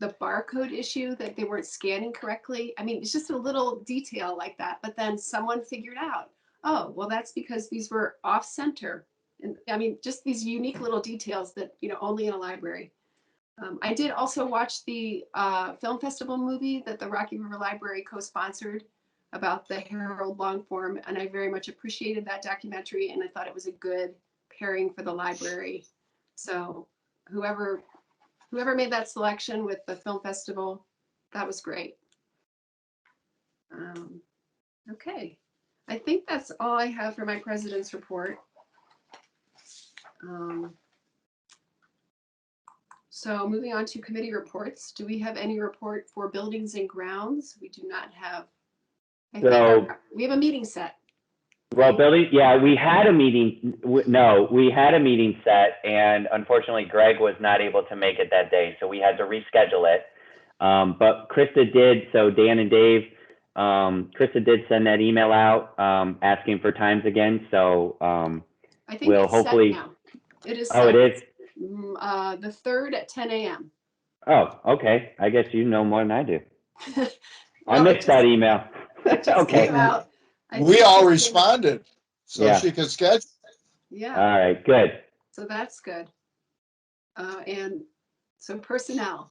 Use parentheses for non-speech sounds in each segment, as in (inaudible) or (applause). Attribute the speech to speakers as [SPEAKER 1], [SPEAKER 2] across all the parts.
[SPEAKER 1] the barcode issue that they weren't scanning correctly. I mean, it's just a little detail like that, but then someone figured out, oh, well, that's because these were off center. And I mean, just these unique little details that, you know, only in a library. Um, I did also watch the uh, film festival movie that the Rocky River Library co-sponsored about the Herald long form, and I very much appreciated that documentary, and I thought it was a good pairing for the library. So whoever whoever made that selection with the film festival, that was great. Um, okay, I think that's all I have for my president's report. Um, so moving on to committee reports, do we have any report for buildings and grounds? We do not have. I think
[SPEAKER 2] So-
[SPEAKER 1] our- We have a meeting set.
[SPEAKER 2] Well, building, yeah, we had a meeting, w- no, we had a meeting set and unfortunately Greg was not able to make it that day, so we had to reschedule it. Um, but Krista did, so Dan and Dave, um, Krista did send that email out, um, asking for times again, so, um,
[SPEAKER 1] I think
[SPEAKER 2] Well,
[SPEAKER 1] it's set
[SPEAKER 2] hopefully-
[SPEAKER 1] now. It is.
[SPEAKER 2] oh, it
[SPEAKER 1] set.
[SPEAKER 2] is?
[SPEAKER 1] Mm, uh, the third at ten AM.
[SPEAKER 2] Oh, okay, I guess you know more than I do. I
[SPEAKER 1] No, it
[SPEAKER 2] missed that
[SPEAKER 1] just-
[SPEAKER 2] email.
[SPEAKER 1] it just
[SPEAKER 2] Okay,
[SPEAKER 1] came
[SPEAKER 2] all
[SPEAKER 1] out. I think
[SPEAKER 3] We
[SPEAKER 1] it
[SPEAKER 3] all
[SPEAKER 1] just came out.
[SPEAKER 3] responded, so
[SPEAKER 2] Yeah.
[SPEAKER 3] she could schedule.
[SPEAKER 1] Yeah,
[SPEAKER 2] right, good.
[SPEAKER 1] so that's good. Uh, and so personnel,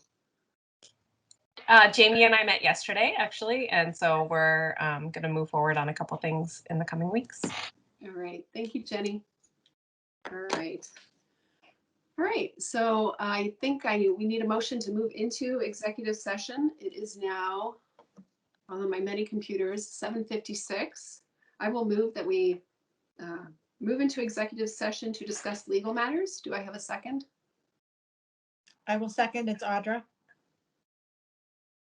[SPEAKER 4] Uh, Jamie and I met yesterday, actually, and so we're um, going to move forward on a couple things in the coming weeks.
[SPEAKER 1] all right, thank you, Jenny. All right. All right, so I think I, we need a motion to move into executive session. It is now on my many computers, seven fifty-six. I will move that we uh, move into executive session to discuss legal matters. Do I have a second?
[SPEAKER 5] I will second. It's Audra.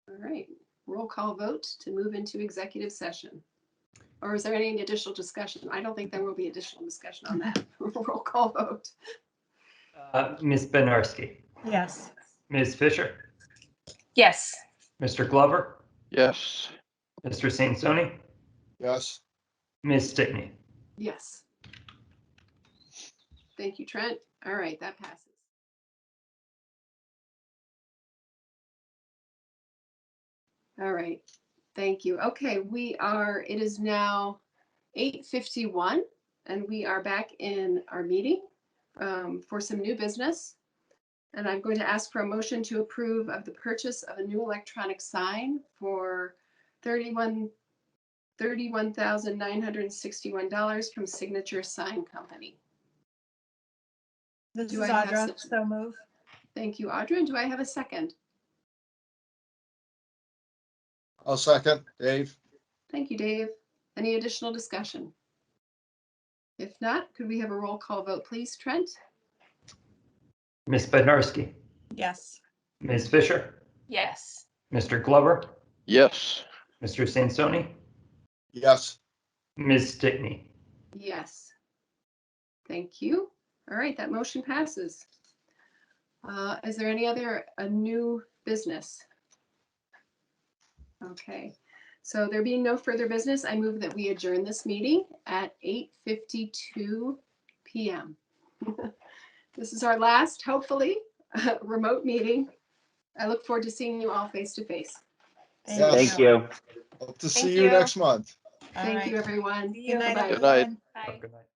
[SPEAKER 1] All right, roll call vote to move into executive session. Or is there any additional discussion? I don't think there will be additional discussion on that. (laughs) Roll call vote.
[SPEAKER 6] Uh, Ms. Benarski,
[SPEAKER 5] Yes.
[SPEAKER 6] Ms. Fisher,
[SPEAKER 4] Yes.
[SPEAKER 6] Mr. Glover,
[SPEAKER 7] Yes.
[SPEAKER 6] Mr. Sansoni,
[SPEAKER 3] Yes.
[SPEAKER 6] Ms. Stickney.
[SPEAKER 1] Yes. Thank you, Trent. All right, that passes. All right, thank you. Okay, we are, it is now 8:51 and we are back in our meeting um, for some new business. And I'm going to ask for a motion to approve of the purchase of a new electronic sign for 31 $31,961 from Signature Sign Company.
[SPEAKER 5] This is
[SPEAKER 1] Do I have
[SPEAKER 5] Audra.
[SPEAKER 1] such-
[SPEAKER 5] So move.
[SPEAKER 1] Thank you, Audra. And do I have a second?
[SPEAKER 3] I'll second. Dave?
[SPEAKER 1] Thank you, Dave. Any additional discussion? If not, could we have a roll call vote, please? Trent?
[SPEAKER 6] Ms. Benarski,
[SPEAKER 5] Yes.
[SPEAKER 6] Ms. Fisher,
[SPEAKER 4] Yes.
[SPEAKER 6] Mr. Glover,
[SPEAKER 7] Yes.
[SPEAKER 6] Mr. Sansoni,
[SPEAKER 3] Yes.
[SPEAKER 6] Ms. Stickney.
[SPEAKER 1] Yes. Thank you. All right, that motion passes. Uh, Is there any other, a new business? Okay, so there being no further business, I move that we adjourn this meeting at 8:52 PM. (laughs) This is our last, hopefully, (laughs) remote meeting. I look forward to seeing you all face to face.
[SPEAKER 3] Yes.
[SPEAKER 2] Thank you.
[SPEAKER 3] Hope to
[SPEAKER 4] Thank
[SPEAKER 3] see you
[SPEAKER 4] you.
[SPEAKER 3] next month.
[SPEAKER 5] All
[SPEAKER 1] Thank
[SPEAKER 5] right.
[SPEAKER 1] you, everyone.
[SPEAKER 5] Good night,
[SPEAKER 1] Bye-bye.
[SPEAKER 7] Good night.
[SPEAKER 5] everyone.
[SPEAKER 4] Bye.
[SPEAKER 6] Good night.